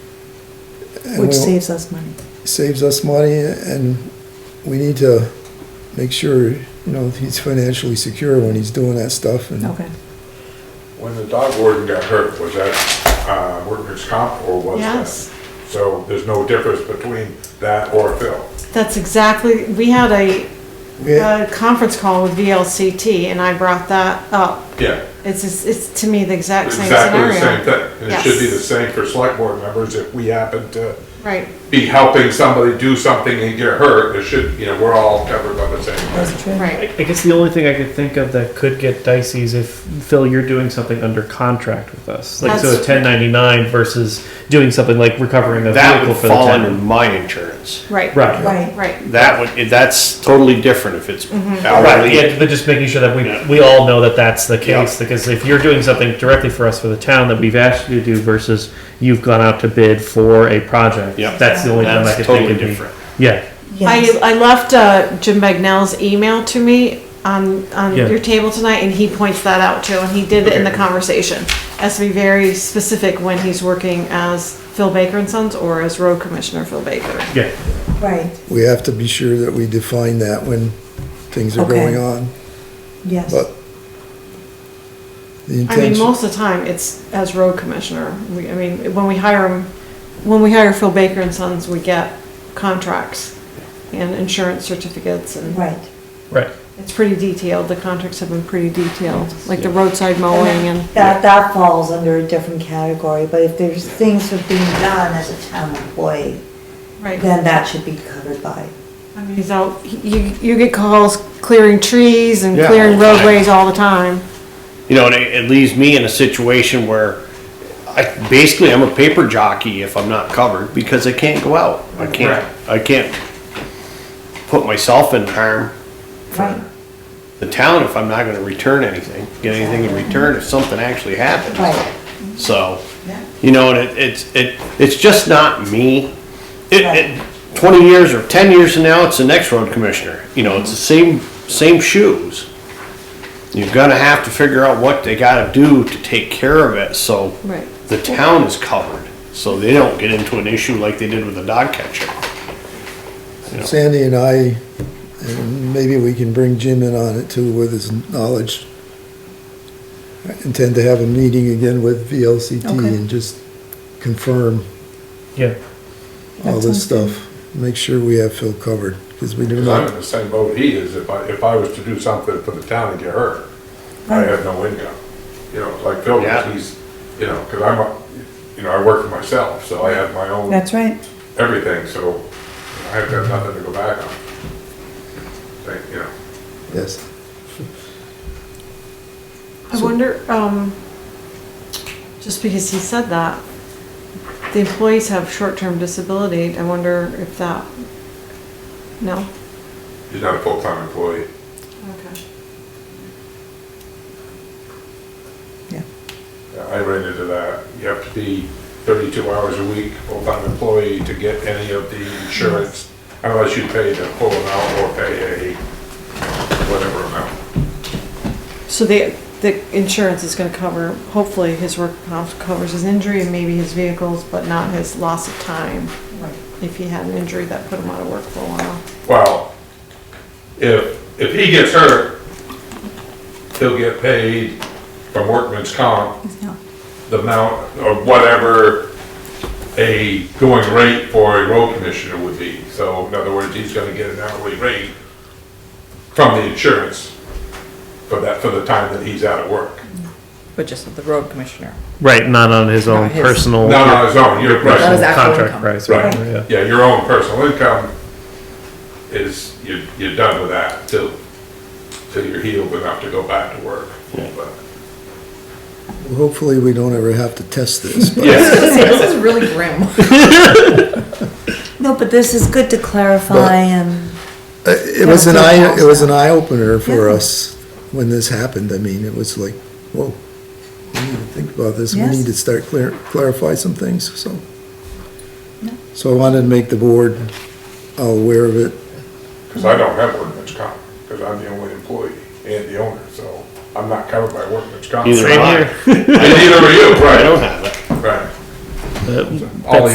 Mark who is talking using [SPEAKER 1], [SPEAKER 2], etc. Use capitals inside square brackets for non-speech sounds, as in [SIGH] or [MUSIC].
[SPEAKER 1] and
[SPEAKER 2] which
[SPEAKER 1] we'll-
[SPEAKER 2] saves us money.
[SPEAKER 1] saves us money, and we need to make sure, you know, he's financially secure when he's doing that stuff, and
[SPEAKER 2] Okay.
[SPEAKER 3] When the dog warden got hurt, was that uh, workers' comp or was that?
[SPEAKER 4] Yes.
[SPEAKER 3] So there's no difference between that or Phil?
[SPEAKER 4] That's exactly, we had a,
[SPEAKER 1] we-
[SPEAKER 4] a conference call with VLCT and I brought that up.
[SPEAKER 3] Yeah.
[SPEAKER 4] It's, just- it's to me the exact same
[SPEAKER 3] Exactly the same
[SPEAKER 4] scenario.
[SPEAKER 3] thing. And it should be
[SPEAKER 4] Yes.
[SPEAKER 3] the same for select board members if we happen to
[SPEAKER 4] Right,
[SPEAKER 3] be helping somebody do something and get hurt, it should, you know, we're all covered by the same thing.
[SPEAKER 2] That's true.
[SPEAKER 4] right.
[SPEAKER 5] I I guess the only thing I could think of that could get dicey is if Phil, you're doing something under contract with us, like so a
[SPEAKER 4] That's-
[SPEAKER 5] 1099 versus doing something like recovering a
[SPEAKER 6] That
[SPEAKER 5] vehicle
[SPEAKER 6] would
[SPEAKER 5] for
[SPEAKER 6] fall
[SPEAKER 5] the
[SPEAKER 6] under
[SPEAKER 5] town.
[SPEAKER 6] my insurance.
[SPEAKER 4] Right.
[SPEAKER 5] Right.
[SPEAKER 2] Right.
[SPEAKER 4] Right.
[SPEAKER 6] That would, that's totally different if it's
[SPEAKER 5] Right, yeah,
[SPEAKER 6] hourly.
[SPEAKER 5] but just making sure that we we all know that that's the case
[SPEAKER 6] Yeah.
[SPEAKER 5] because if you're doing something directly for us for the town that we've asked you to do versus you've gone out to bid for a project,
[SPEAKER 6] Yep.
[SPEAKER 5] that's the only time I
[SPEAKER 6] That's
[SPEAKER 5] could
[SPEAKER 6] totally
[SPEAKER 5] think of
[SPEAKER 6] different.
[SPEAKER 5] Yeah,
[SPEAKER 2] Yes.
[SPEAKER 4] I, I left uh, Jim Bagnell's email to me on, on
[SPEAKER 5] Yeah.
[SPEAKER 4] your table tonight, and he points that out too, and he did it in the conversation. Has to be very specific when he's working as Phil Baker and Sons or as Road Commissioner Phil Baker.
[SPEAKER 5] yeah.
[SPEAKER 2] Right,
[SPEAKER 1] we have to be sure that we define that when things are
[SPEAKER 2] Okay.
[SPEAKER 1] going on,
[SPEAKER 2] yes.
[SPEAKER 1] but the
[SPEAKER 4] I mean,
[SPEAKER 1] intention,
[SPEAKER 4] most of the time, it's as Road Commissioner. We, I mean, when we hire him, when we hire Phil Baker and Sons, we get contracts and insurance certificates, and
[SPEAKER 2] Right.
[SPEAKER 5] Right.
[SPEAKER 4] it's pretty detailed. The contracts have been pretty detailed, like the roadside mowing and.
[SPEAKER 2] That, that falls under a different category, but if there's things that are being done as a town employee,
[SPEAKER 4] Right.
[SPEAKER 2] then that should be covered by.
[SPEAKER 4] I mean, He's out, you, you get calls clearing trees and
[SPEAKER 6] Yeah.
[SPEAKER 4] clearing roadways all the time.
[SPEAKER 6] You know, and it, it leaves me in a situation where I, basically I'm a paper jockey if I'm not covered because I can't go out. I can't, I can't put myself in harm.
[SPEAKER 2] Right,
[SPEAKER 6] The town if I'm not gonna return anything, get anything in return if something actually happens.
[SPEAKER 2] right.
[SPEAKER 6] So,
[SPEAKER 2] Yeah.
[SPEAKER 6] you know, and it, it's, it, it's just not me. It,
[SPEAKER 2] Right.
[SPEAKER 6] it, twenty years or ten years from now, it's the next road commissioner, you know, it's the same, same shoes. You're gonna have to figure out what they gotta do to take care of it, so.
[SPEAKER 4] Right.
[SPEAKER 6] The town is covered, so they don't get into an issue like they did with the dog catcher.
[SPEAKER 1] Sandy and I, and maybe we can bring Jim in on it too with his knowledge. I intend to have a meeting again with VLCT
[SPEAKER 2] Okay.
[SPEAKER 1] and just confirm
[SPEAKER 5] Yeah.
[SPEAKER 1] all
[SPEAKER 2] That
[SPEAKER 1] this
[SPEAKER 2] sounds good.
[SPEAKER 1] stuff, make sure we have Phil covered, because we do
[SPEAKER 3] Because I'm in
[SPEAKER 1] not,
[SPEAKER 3] the same boat he is, if I, if I was to do something for the town and get hurt, I have no income. You know, like Phil,
[SPEAKER 6] Yeah.
[SPEAKER 3] he's, you know, because I'm, a- you know, I work for myself, so I have my own
[SPEAKER 2] That's right.
[SPEAKER 3] everything, so I have to have nothing to go back on. Thank, you know,
[SPEAKER 1] yes.
[SPEAKER 4] I wonder, um, just because he said that, the employees have short-term disability. I wonder if that, no?
[SPEAKER 3] he's not a full-time employee.
[SPEAKER 4] Okay.
[SPEAKER 3] I ran into that. You have to be thirty-two hours a week, full-time employee to get any of the insurance unless you pay the full amount or pay a whatever amount.
[SPEAKER 4] So the, the insurance is gonna cover, hopefully his work comp covers his injury and maybe his vehicles, but not his loss of time.
[SPEAKER 2] Right.
[SPEAKER 4] If he had an injury that put him out of work for a while.
[SPEAKER 3] Well, if, if he gets hurt, he'll get paid from workman's comp, the amount or whatever a going rate for a road commissioner would be. So in other words, he's gonna get an hourly rate from the insurance for that, for the time that he's out of work.
[SPEAKER 7] But just the road
[SPEAKER 2] [LAUGHS]
[SPEAKER 7] commissioner.
[SPEAKER 5] Right, not on his own
[SPEAKER 7] Not his.
[SPEAKER 5] personal.
[SPEAKER 3] Not on his own, your
[SPEAKER 5] personal
[SPEAKER 7] Not his
[SPEAKER 3] personal,
[SPEAKER 7] actual
[SPEAKER 5] contract
[SPEAKER 7] income.
[SPEAKER 5] price,
[SPEAKER 3] Right.
[SPEAKER 5] right? Yeah.
[SPEAKER 3] yeah, your own personal income is, you're, you're done with that till, till you're healed enough to go back to work. But-
[SPEAKER 1] Hopefully, we don't ever have to test this, but
[SPEAKER 3] Yeah,
[SPEAKER 7] This is really grim.
[SPEAKER 2] No, but this is good to clarify and,
[SPEAKER 1] uh, it was an eye, it was an eye opener for
[SPEAKER 2] Yeah.
[SPEAKER 1] us when this happened. I mean, it was like, whoa, we need to think about this. We
[SPEAKER 2] Yes.
[SPEAKER 1] need to start clear, clarify some things, so.
[SPEAKER 2] No.
[SPEAKER 1] So I wanted to make the board all aware of it.
[SPEAKER 3] because I don't have workman's comp, because I'm the only employee and the owner, so I'm not covered by workman's comp.
[SPEAKER 6] Neither am
[SPEAKER 5] Same
[SPEAKER 6] [LAUGHS] I.
[SPEAKER 5] here.
[SPEAKER 3] And neither are you,
[SPEAKER 6] I don't
[SPEAKER 3] right,
[SPEAKER 6] have it.
[SPEAKER 3] right.
[SPEAKER 5] Uh,
[SPEAKER 3] All